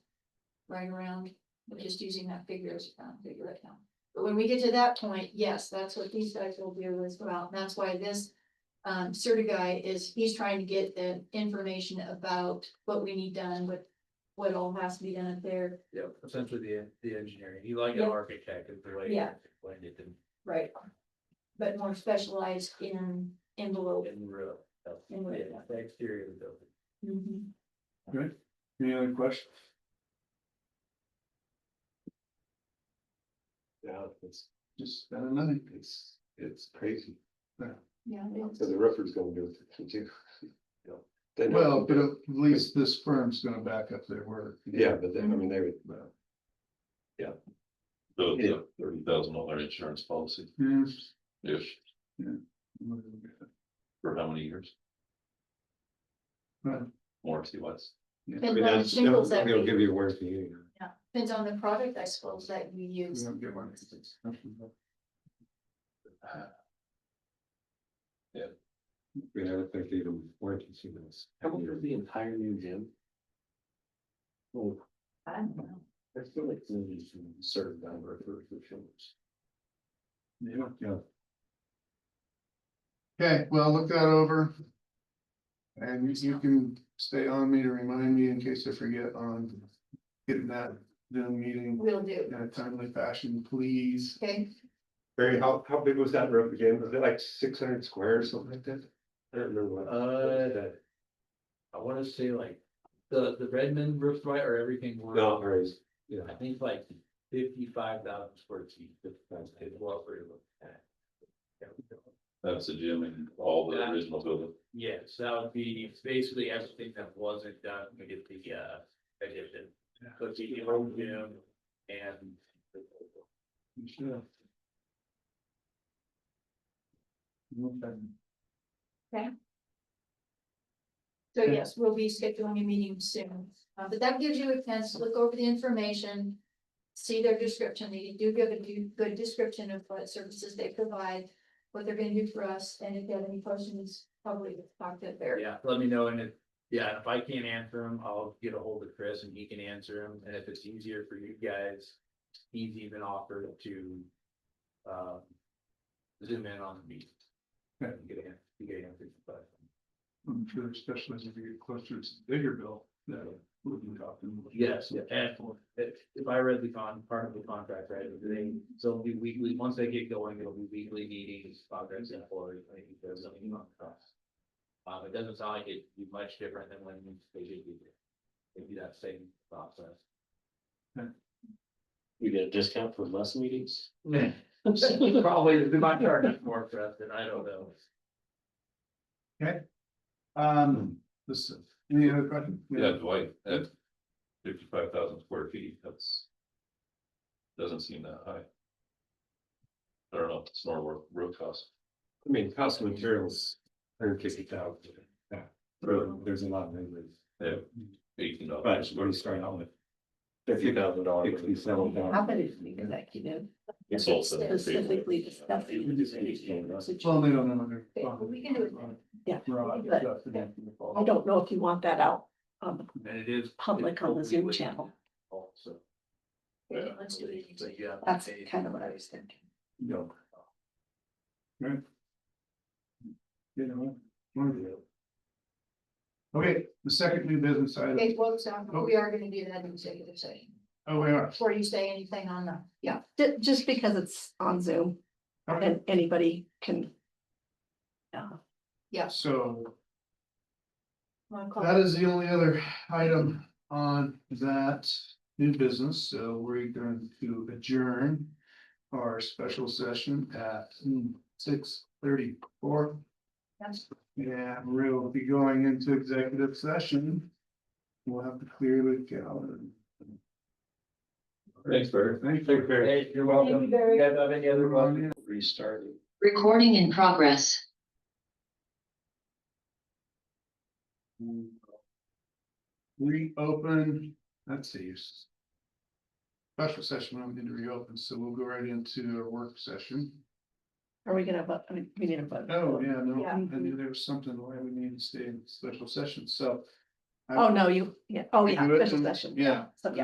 right around, but just using that figure as a round figure right now. But when we get to that point, yes, that's what these guys will do as well, and that's why this um, Serta guy is, he's trying to get the information about what we need done, what, what all has to be done up there. Yeah, essentially the, the engineering, you like an Yeah. architect is the way. Yeah. When it did Right. But more specialized in envelope. in real. In real. Yeah, the exterior of the building. Mhm. Good. Any other questions? Yeah, it's, Just, uh, I don't know. it's, it's crazy. Yeah. So the roofers gonna do it too. They know. Well, but uh, at least this firm's gonna back up their word. Yeah, but then, I mean, they would, But, So it's Yeah. a thirty thousand dollar insurance policy, yeah, if, we'll- for how many years? Right. Warranty wise, I Depends mean, on the that's, shingles that they'll we, give you a warranty. you depends on the product, I suppose, that you we use. don't get one of these. know. We never think they even warranty shingles. How big is the entire new gym? Well, I don't know. I feel like there's a certain number of roofers. Yeah. Okay, well, look that over. And you- you can stay on me to remind me in case I forget on getting that Zoom meeting Will do, in a timely fashion, please. okay? Barry, how, how big was that roof again? Was it like six hundred square or something like that? I don't remember what. Uh, I wanna say like, the, the Redmond roof, right, or everything. one, No, or is, yeah. I think like fifty-five thousand square feet, fifty-five, it's well for you. that's the gym and all the Yeah. original building, Yes, that would be basically everything that wasn't done, we did the, uh, addition. So it's the old gym and. Sure. Okay. So yes, we'll be scheduling a meeting soon, Uh, but that gives you a chance to look over the information. See their description, they do give a do- good description of what services they provide, what they're gonna do for us, and if you have any questions, probably talk to their. Yeah, let me know, and if, yeah, if I can't answer them, I'll get a hold of Chris and he can answer them, and if it's easier for you guys, he's even offered to. Um. Zoom in on the meet. Okay. And Get an, you get answers, but. I'm sure especially as we get closer to the bigger bill, that we'll be talking. Yes, and if, if I read the con, part of the contract, right, they, so it'll be weekly, once they get going, it'll be weekly meetings, progress and for, like, because I mean, on trust. Um, it doesn't sound like it'd be much different than when they did it. It'd be that same process. You get a discount for less meetings? Probably, they might charge us more for us, and I don't know. Um, listen, any other question? yeah, Dwight, at fifty-five thousand square feet, that's. Doesn't seem that high. I don't know, it's normal roof- roof cost, I mean, cost of materials, hundred fifty thousand. Yeah, Road, there's a lot of numbers. yeah, eighteen But dollars. what are you starting out with? Fifty thousand dollars. Sixty-seven How thousand. about if we executive It's also. specifically We just understand discussing? that. Well, they don't know. they're- Okay, well, we can do it then. Yeah, Right, but- that's the next one. I don't know if you want that out on the And it is. public on the Zoom channel. Also. Yeah, let's do it. So you have to That's pay- kind of what I was thinking. No. Right. You know. one of the other. Okay, the second new business item, Okay, well, so we are gonna do that in executive session, oh, we are. before you say anything on the, yeah. Ju- just because it's on Zoom Okay, and anybody can. uh, so wanna call that is the only other item on that new business, so we're going to adjourn. Our special session at six thirty-four. Yes. Yeah, we'll be going into executive session. We'll have to clear the calendar. Thanks, Barry. Thank Hey, you. you're Thank you welcome. very You guys have any other questions? Restarting. Recording in progress. Reopen, let's see. s- Special session, I'm going to reopen, so we'll go right into our work session. Are we gonna vote? I mean, we need a vote. Oh, yeah, no, Yeah. I knew there was something why we need to stay in special session, so. I- Oh, no, you, yeah, oh, We yeah, do it special in- session. yeah. So, yeah.